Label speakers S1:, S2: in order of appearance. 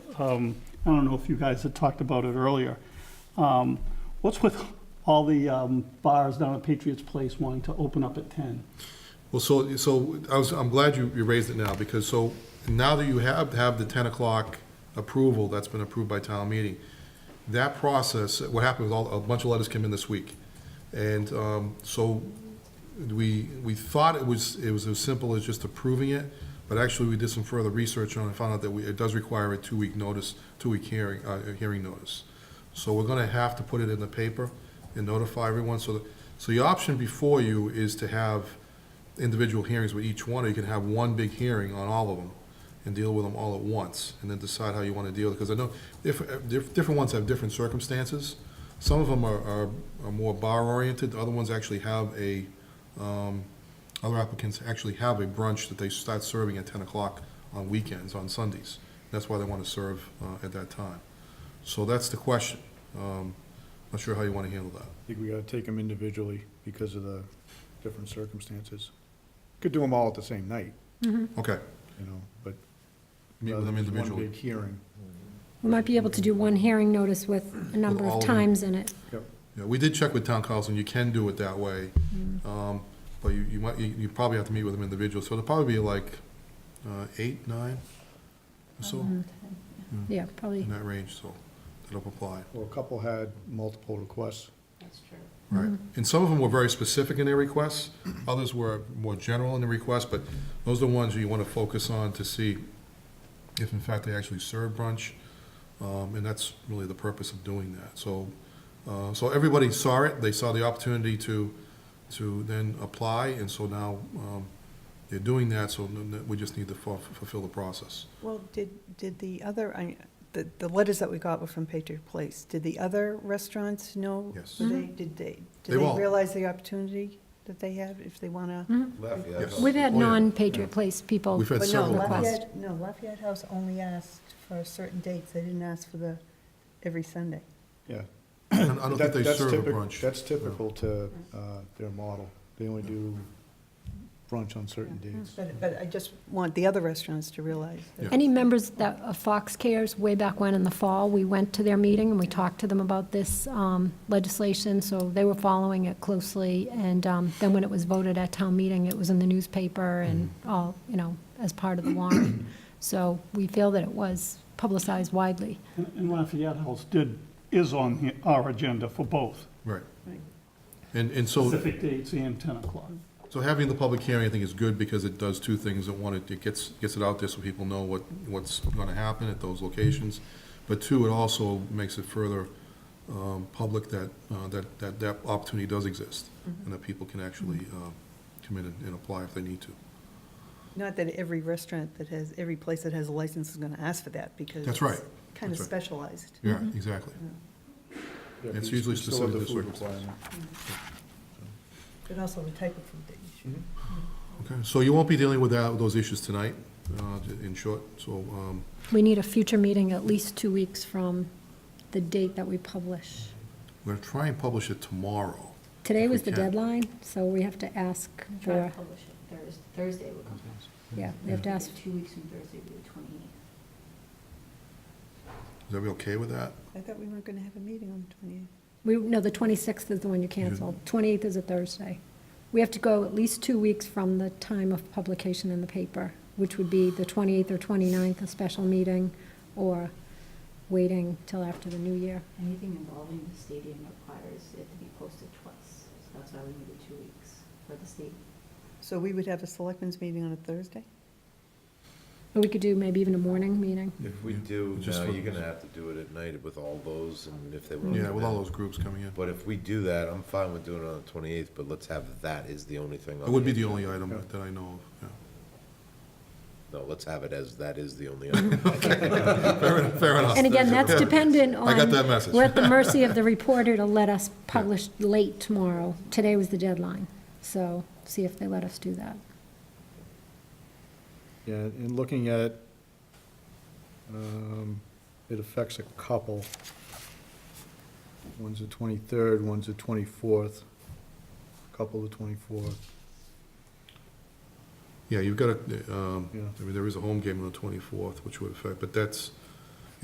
S1: um, I don't know if you guys had talked about it earlier. Um, What's with all the um, bars down at Patriots Place wanting to open up at 10?
S2: Well, so, so I was, I'm glad you, you raised it now, because so, now that you have, have the ten o'clock approval that's been approved by town meeting, that process, what happened was all, a bunch of letters came in this week. And, um, so, we, we thought it was, it was as simple as just approving it, but actually, we did some further research on it, and found out that we, it does require a two-week notice, two-week hearing, uh, a hearing notice. So we're gonna have to put it in the paper and notify everyone, so, the- so the option before you is to have individual hearings with each one, or you can have one big hearing on all of them and deal with them all at once, and then decide how you want to deal, because I know, if, if, different ones have different circumstances. Some of them are, are, are more bar-oriented, other ones actually have a, um, other applicants actually have a brunch that they start serving at ten o'clock on weekends, on Sundays. That's why they want to serve, uh, at that time. So that's the question. Um, not sure how you want to handle that.
S3: I think we gotta take them individually because of the different circumstances. Could do them all at the same night,
S2: Okay,
S3: you know, but.
S2: meet with them
S3: rather than
S2: individually.
S3: Uh, One big hearing.
S4: We might be able to do one hearing notice with a number
S2: all
S4: of
S2: of them.
S4: times in it.
S3: Yep.
S2: Yeah, we did check with town council, and you can do it that way. Um, But you, you might, you you probably have to meet with them individually, so it'll probably be like uh, eight, nine, or so,
S4: Yeah, probably.
S2: in that range, so that'll apply,
S3: Well, a couple had multiple requests.
S2: right? And some of them were very specific in their requests, others were more general in their requests, but those are the ones you want to focus on to see if in fact they actually serve brunch, um, and that's really the purpose of doing that. So, uh, so everybody saw it, they saw the opportunity to, to then apply, and so now um, they're doing that, so n- n- we just need to fu- fulfill the process.
S5: Well, did, did the other, I, the, the letters that we got were from Patriot Place. Did the other restaurants know?
S2: Yes.
S5: were they- Did they,
S2: They
S5: did they
S2: all-
S5: realize the opportunity that they have if they want to?
S2: Yes.
S4: We've had
S2: Oh, yeah.
S4: non-Patriot Place people.
S2: We've had
S5: But no,
S2: several.
S4: Lafayette-
S5: Lafayette, no, Lafayette House only asked for certain dates. They didn't ask for the, every Sunday.
S3: Yeah.
S2: I don't I don't think they
S3: That- that's
S2: serve a
S3: typic-
S2: brunch.
S3: That's typical to, uh, their model. They only do brunch on certain dates.
S5: But, but I just want the other restaurants to realize that.
S4: Any members that, of Fox Cares, way back when in the fall, we went to their meeting and we talked to them about this um, legislation, so they were following it closely. And um, then when it was voted at town meeting, it was in the newspaper and
S2: Mm-hmm.
S4: all, you know, as part of the warrant. So we feel that it was publicized widely.
S1: And and Lafayette House did, is on he- our agenda for both,
S2: Right. And, and so.
S1: specific dates and 10 o'clock.
S2: So having the public hearing, I think, is good because it does two things. It, one, it gets, gets it out there so people know what, what's gonna happen at those locations. But two, it also makes it further, um, public that, uh, that, that, that opportunity does exist and that people can actually, uh, come in and, and apply if they need to.
S5: Not that every restaurant that has, every place that has a license is going to ask for that because.
S2: That's right.
S5: Kind of
S2: That's right.
S5: specialized.
S2: Yeah, exactly.
S3: Yeah,
S2: It's
S3: we-
S2: usually
S3: we still
S2: specific
S3: have the
S2: to
S3: food
S2: circumstances.
S3: requirement.
S5: But also the type of food that you
S2: Mm-hmm.
S5: should.
S2: Okay, so you won't be dealing with that, with those issues tonight, uh, in short, so, um,
S4: We need a future meeting at least two weeks from the date that we publish.
S2: we're gonna try and publish it tomorrow.
S4: Today
S2: If we
S4: was the
S2: can.
S4: deadline, so we have to ask
S6: Try to
S4: for,
S6: publish it Thursday, Thursday would come out.
S4: yeah, we have to ask,
S6: Two weeks from Thursday would be the twenty-eighth.
S2: Is everybody okay with that?
S5: I thought we weren't going to have a meeting on the 28th.
S4: we, no, the 26th is the one you canceled. 28th is a Thursday. We have to go at least two weeks from the time of publication in the paper, which would be the 28th or 29th, a special meeting, or waiting till after the new year.
S6: Anything involving the stadium requires it to be posted twice, so that's why we needed two weeks for the state.
S5: So we would have a selectmen's meeting on a Thursday?
S4: Or we could do maybe even a morning meeting.
S7: If we do,
S2: Just
S7: no,
S2: for-
S7: you're gonna have to do it at night with all those, and if they were.
S2: Yeah, with all those groups coming in.
S7: But if we do that, I'm fine with doing it on the twenty-eighth, but let's have that is the only thing on.
S2: It would be the
S7: agenda.
S2: only item that I know of,
S7: No, let's have it as that is the only item.
S2: yeah. Fair enough, fair enough.
S4: And again, that's dependent on.
S2: I got that message.
S4: We're at the mercy of the reporter to let us publish late tomorrow. Today was the deadline, so see if they let us do that.
S3: Yeah, and looking at, um, it affects a couple. One's the twenty-third, one's the twenty-fourth, couple the twenty-fourth.
S2: Yeah, you've got a, um,
S3: Yeah.
S2: I mean, there is a home game on the twenty-fourth, which would affect, but that's,